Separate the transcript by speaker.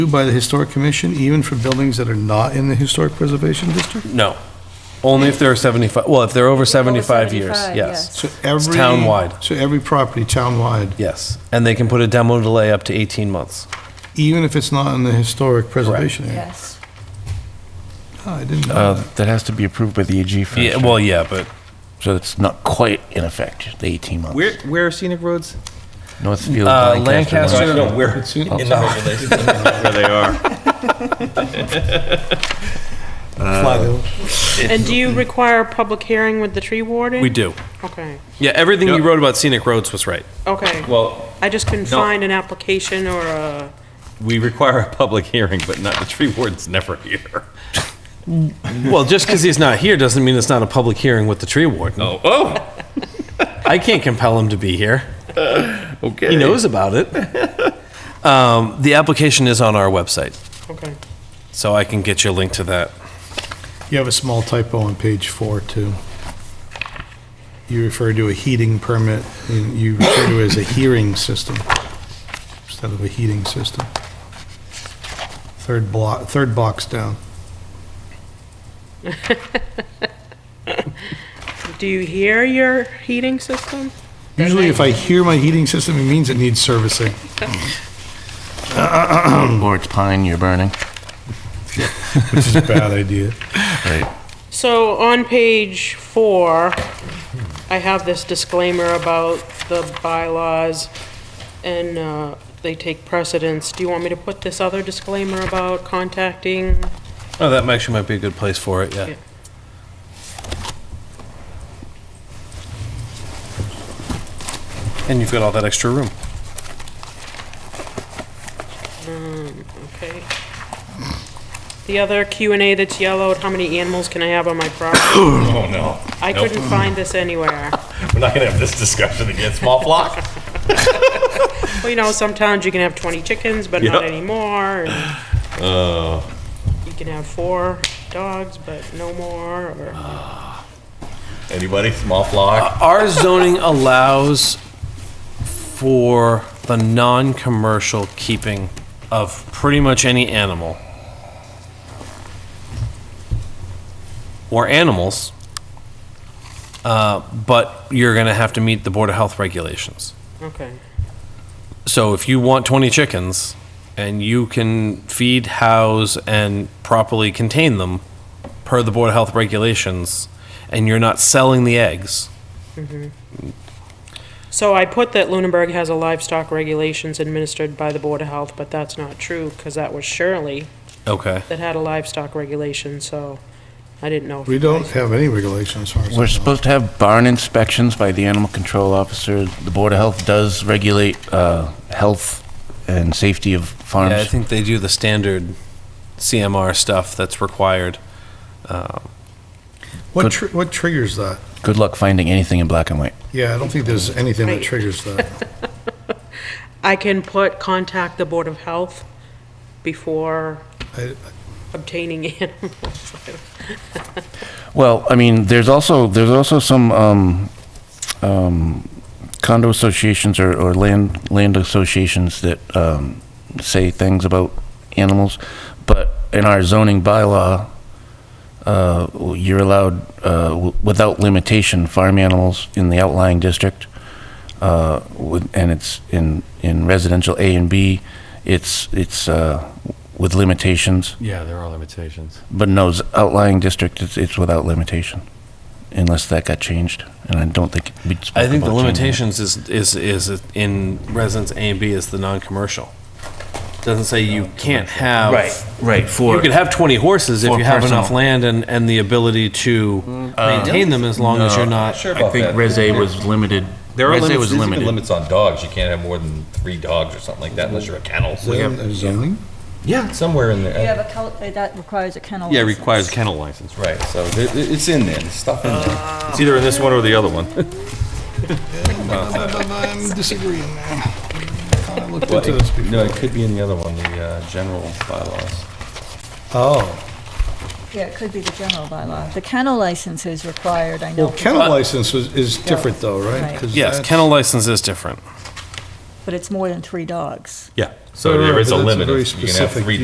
Speaker 1: by the Historic Commission, even for buildings that are not in the Historic Preservation District?
Speaker 2: No. Only if they're 75, well, if they're over 75 years,
Speaker 3: 75,
Speaker 2: yes.
Speaker 1: So every.
Speaker 2: townwide.
Speaker 1: So every property townwide,
Speaker 2: Yes. And they can put a demo delay up to 18 months.
Speaker 1: even if it's not in the Historic Preservation Area?
Speaker 3: Yes.
Speaker 1: Oh, I didn't know.
Speaker 4: Uh, That has to be approved by the AG first.
Speaker 2: Yeah, well, yeah, but
Speaker 4: So it's not quite in effect, the 18 months.
Speaker 5: Where, where are scenic roads?
Speaker 4: Northfield,
Speaker 2: Uh,
Speaker 4: Lancaster.
Speaker 2: Lancaster- Oh,
Speaker 5: No, where,
Speaker 1: It's in-
Speaker 5: in the overlay. Where they are.
Speaker 1: Flywheel.
Speaker 6: And do you require a public hearing with the tree warden?
Speaker 2: we do.
Speaker 6: Okay,
Speaker 2: Yeah, everything you
Speaker 5: Yep.
Speaker 2: wrote about scenic roads was right.
Speaker 6: okay.
Speaker 5: Well,
Speaker 6: I just couldn't
Speaker 5: No.
Speaker 6: find an application or a,
Speaker 5: we require a public hearing, but not, the tree warden's never here.
Speaker 2: Well, just because he's not here doesn't mean it's not a public hearing with the tree warden.
Speaker 5: Oh, oh,
Speaker 2: I can't compel him to be here.
Speaker 5: okay.
Speaker 2: He knows about it. Um, The application is on our website,
Speaker 6: okay.
Speaker 2: so I can get you a link to that.
Speaker 1: You have a small typo on page four, too. You refer to a heating permit, and you refer to it as a hearing system instead of a heating system. Third block, third box down.
Speaker 6: Do you hear your heating system?
Speaker 1: Usually if I hear my heating system, it means it needs servicing.
Speaker 4: Or it's pine you're burning.
Speaker 1: Which is a bad idea.
Speaker 4: Right.
Speaker 6: So on page four, I have this disclaimer about the bylaws and uh, they take precedence. Do you want me to put this other disclaimer about contacting?
Speaker 2: Oh, that actually might be a good place for it, yeah.
Speaker 6: Yeah.
Speaker 2: And you've got all that extra room.
Speaker 6: Okay. The other Q and A that's yellowed, how many animals can I have on my property?
Speaker 5: Oh, no.
Speaker 6: I
Speaker 5: Nope.
Speaker 6: couldn't find this anywhere.
Speaker 5: We're not gonna have this discussion again, small flock.
Speaker 6: Well, you know, sometimes you can have 20 chickens, but not
Speaker 5: Yeah. Uh.
Speaker 6: anymore. and You can have four dogs, but no more, or,
Speaker 5: Anybody, small flock?
Speaker 2: Our zoning allows for the non-commercial keeping of pretty much any animal. Or animals. Uh, But you're going to have to meet the Board of Health regulations.
Speaker 6: okay.
Speaker 2: So if you want 20 chickens and you can feed, house, and properly contain them per the Board of Health regulations, and you're not selling the eggs,
Speaker 6: So I put that Lunenburg has a livestock regulations administered by the Board of Health, but that's not true, because that was Shirley
Speaker 2: okay.
Speaker 6: that had a livestock regulation, so I didn't know. if
Speaker 1: We
Speaker 6: you
Speaker 1: don't
Speaker 6: guys-
Speaker 1: have any regulations as far as I know.
Speaker 4: We're supposed to have barn inspections by the animal control officer. The Board of Health does regulate uh, health and safety of farms.
Speaker 2: Yeah, I think they do the standard CMR stuff that's required.
Speaker 1: What, tr- what triggers that?
Speaker 4: Good luck finding anything in black and white.
Speaker 1: Yeah, I don't think there's anything that
Speaker 6: Right.
Speaker 1: triggers that.
Speaker 6: I can put contact the Board of Health before
Speaker 1: I-
Speaker 6: obtaining animals.
Speaker 4: Well, I mean, there's also, there's also some um, um, condo associations or, or land, land associations that um, say things about animals, but in our zoning bylaw, uh, you're allowed, uh, w- without limitation, farm animals in the outlying district, uh, with- and it's in, in residential A and B, it's, it's uh, with limitations.
Speaker 5: Yeah, there are limitations.
Speaker 4: But no, s- outlying district, it's, it's without limitation, unless that got changed, and I don't think we spoke
Speaker 2: I think the
Speaker 4: about changing it.
Speaker 2: limitations is, is, is in residence A and B is the non-commercial. Doesn't say you can't have.
Speaker 4: Right, right, for.
Speaker 2: You could have 20 horses if
Speaker 4: For
Speaker 2: you have enough
Speaker 4: personal.
Speaker 2: land and, and the ability to maintain them as long as you're not.
Speaker 5: Mm-hmm. Uh, Sure
Speaker 4: I
Speaker 5: about
Speaker 4: think
Speaker 5: that.
Speaker 4: Res A was limited.
Speaker 5: There are
Speaker 4: Res A
Speaker 5: limits,
Speaker 4: was
Speaker 5: there's even
Speaker 4: limited.
Speaker 5: limits on dogs. You can't have more than three dogs or something like that unless you're a kennel.
Speaker 1: Zoning?
Speaker 5: Yeah, somewhere in
Speaker 7: You
Speaker 5: there.
Speaker 7: have a, cal- uh, that requires a kennel.
Speaker 5: Yeah,
Speaker 7: license.
Speaker 5: requires kennel license, right, so there- it- it's in there, there's stuff in there. It's either in this one or the other one.
Speaker 1: I'm disagreeing there. I looked
Speaker 5: Well,
Speaker 1: into this
Speaker 5: it- No,
Speaker 1: before.
Speaker 5: it could be in the other one, the uh, general bylaws.
Speaker 1: Oh,
Speaker 7: Yeah, it could be the general bylaw. The kennel license is required, I know.
Speaker 1: well, kennel license is, is different though, right?
Speaker 7: Right.
Speaker 1: 'Cause
Speaker 2: Yes,
Speaker 1: that's-
Speaker 2: kennel license is different.
Speaker 7: but it's more than three dogs.
Speaker 5: Yeah, so there is a limit. of- You can have three